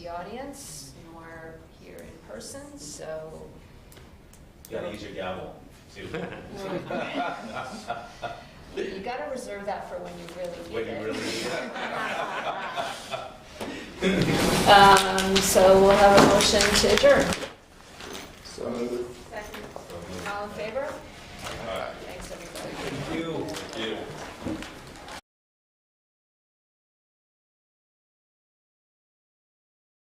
audience nor here in person, so Gotta use your gavel, too. you gotta reserve that for when you really When need you it. really need it. Um, so we'll have a motion to adjourn. So moved. All in favor?